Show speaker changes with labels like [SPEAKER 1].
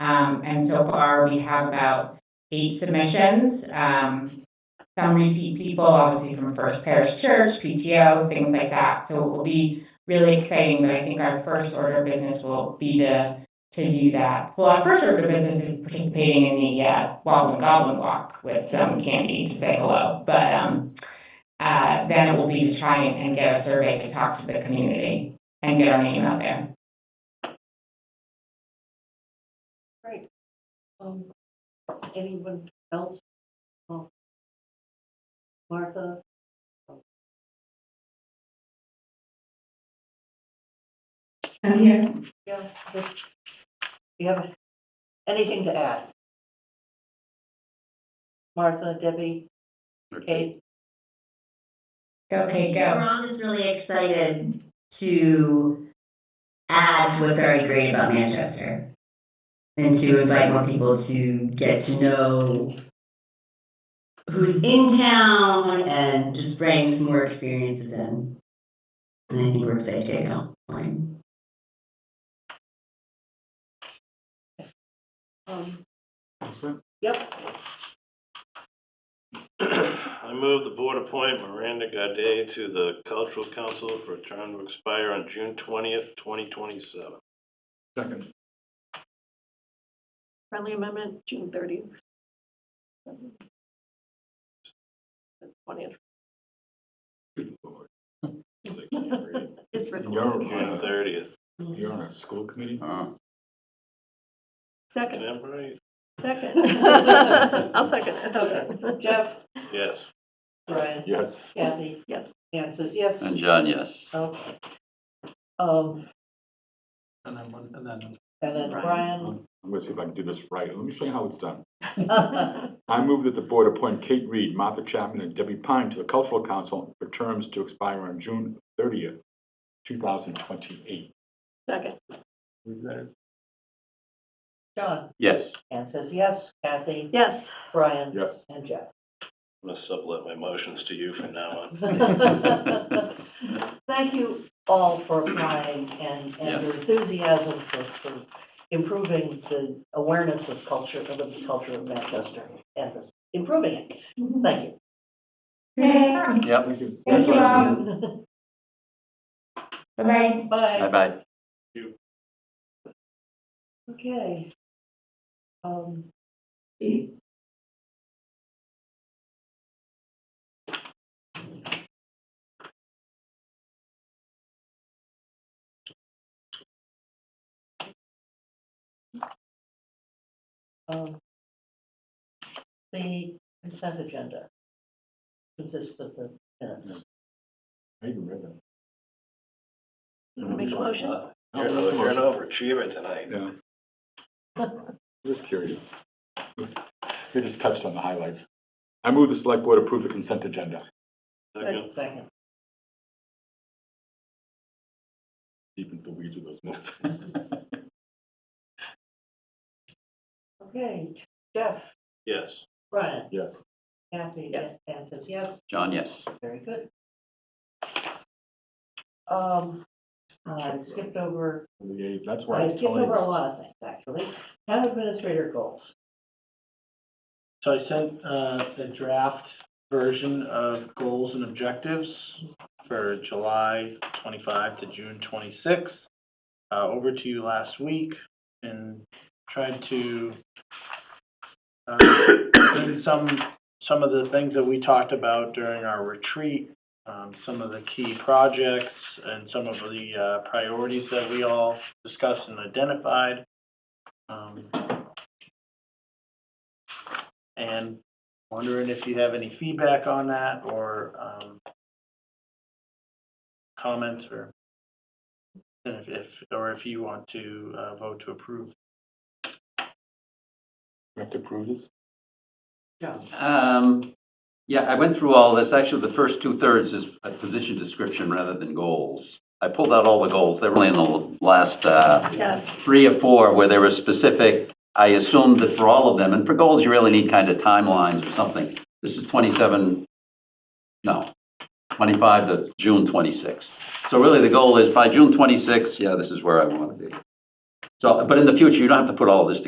[SPEAKER 1] Um, and so far, we have about eight submissions. Um, some repeat people, obviously from First Parish Church, PTO, things like that. So it will be really exciting, but I think our first order of business will be to, to do that. Well, our first order of business is participating in the, uh, Wobbling Goblin Walk with some candy to say hello. But, um, uh, then it will be to try and, and get a survey to talk to the community and get our name out there.
[SPEAKER 2] Um, anyone else? Um, Martha?
[SPEAKER 3] I'm here.
[SPEAKER 2] Yeah. just- You have anything to add? Martha, Debbie, Kate?
[SPEAKER 1] Okay,
[SPEAKER 4] We're all just really excited to add to what's already great about Manchester and to invite more people to get to know who's in town and just bring some more experiences in. And I think we're excited to get going.
[SPEAKER 2] Um, Yep.
[SPEAKER 5] I move the board appoint Miranda Gaudet to the Cultural Council for a term to expire on June twentieth, twenty twenty-seven.
[SPEAKER 6] Second.
[SPEAKER 2] Friendly amendment, June thirtieth. Twentieth, it's recorded.
[SPEAKER 5] June thirtieth.
[SPEAKER 6] uh, You're on a school committee?
[SPEAKER 5] Am
[SPEAKER 7] Second,
[SPEAKER 5] I right?
[SPEAKER 7] second. I'll second it, okay.
[SPEAKER 2] Jeff,
[SPEAKER 5] Yes.
[SPEAKER 2] Brian,
[SPEAKER 6] Yes.
[SPEAKER 2] Kathy,
[SPEAKER 7] Yes.
[SPEAKER 2] Anne says yes.
[SPEAKER 8] And John, yes.
[SPEAKER 2] Okay. Um,
[SPEAKER 9] And then one, and then
[SPEAKER 2] and then Brian.
[SPEAKER 6] I'm gonna see if I can do this right. Let me show you how it's done. I move that the board appoint Kate Reed, Martha Chapman, and Debbie Pine to the Cultural Council for terms to expire on June thirtieth, two thousand twenty-eight.
[SPEAKER 7] Second,
[SPEAKER 6] Who's that is?
[SPEAKER 2] John,
[SPEAKER 8] Yes.
[SPEAKER 2] Anne says yes, Kathy,
[SPEAKER 7] yes.
[SPEAKER 2] Brian,
[SPEAKER 6] Yes.
[SPEAKER 2] and Jeff.
[SPEAKER 5] I'm gonna sublet my motions to you from now on.
[SPEAKER 2] Thank you all for applying and, and your enthusiasm for, for improving the awareness of culture, of the culture of Manchester and improving it. Thank
[SPEAKER 1] Yay.
[SPEAKER 8] Yep.
[SPEAKER 6] Thank you.
[SPEAKER 1] Thank you all.
[SPEAKER 2] you.
[SPEAKER 1] Bye-bye.
[SPEAKER 2] Bye.
[SPEAKER 8] Bye-bye.
[SPEAKER 2] Okay. Um, um, The consent agenda consists of the minutes.
[SPEAKER 6] I even read that.
[SPEAKER 7] You wanna Make a motion?
[SPEAKER 5] You're an you're an overachiever tonight.
[SPEAKER 6] Yeah. Just curious. You just touched on the highlights. I move the select board approve the consent agenda.
[SPEAKER 5] Second.
[SPEAKER 2] Second.
[SPEAKER 6] Deep into the weeds with those minutes.
[SPEAKER 2] Okay, Jeff,
[SPEAKER 5] Yes.
[SPEAKER 2] Brian,
[SPEAKER 6] Yes.
[SPEAKER 2] Kathy,
[SPEAKER 7] Yes.
[SPEAKER 2] Anne says yes.
[SPEAKER 8] John, yes.
[SPEAKER 2] Very good. Um, I skipped over,
[SPEAKER 6] Yeah, That's why.
[SPEAKER 2] I
[SPEAKER 6] it's
[SPEAKER 2] skipped over a
[SPEAKER 6] always-
[SPEAKER 2] lot of things, actually. Town administrator goals.
[SPEAKER 9] so I sent uh, the draft version of goals and objectives for July twenty-five to June twenty-six uh, over to you last week and tried to uh, bring some some of the things that we talked about during our retreat, um, some of the key projects and some of the uh, priorities that we all discussed and identified. Um, and wondering if you have any feedback on that or um, comments or and if, if, or if you want to uh, vote to approve.
[SPEAKER 6] We have to approve this?
[SPEAKER 8] Um, yeah, I went through all this. Actually, the first two thirds is a position description rather than goals. I pulled out all the goals. They were only in the last, uh,
[SPEAKER 7] Yes.
[SPEAKER 8] three or four where there were specific. I assumed that for all of them, and for goals, you really need kind of timelines or something. This is twenty-seven, no, twenty-five to June twenty-six. So really, the goal is by June twenty-six, yeah, this is where I want to be. So, but in the future, you don't have to put all of this together.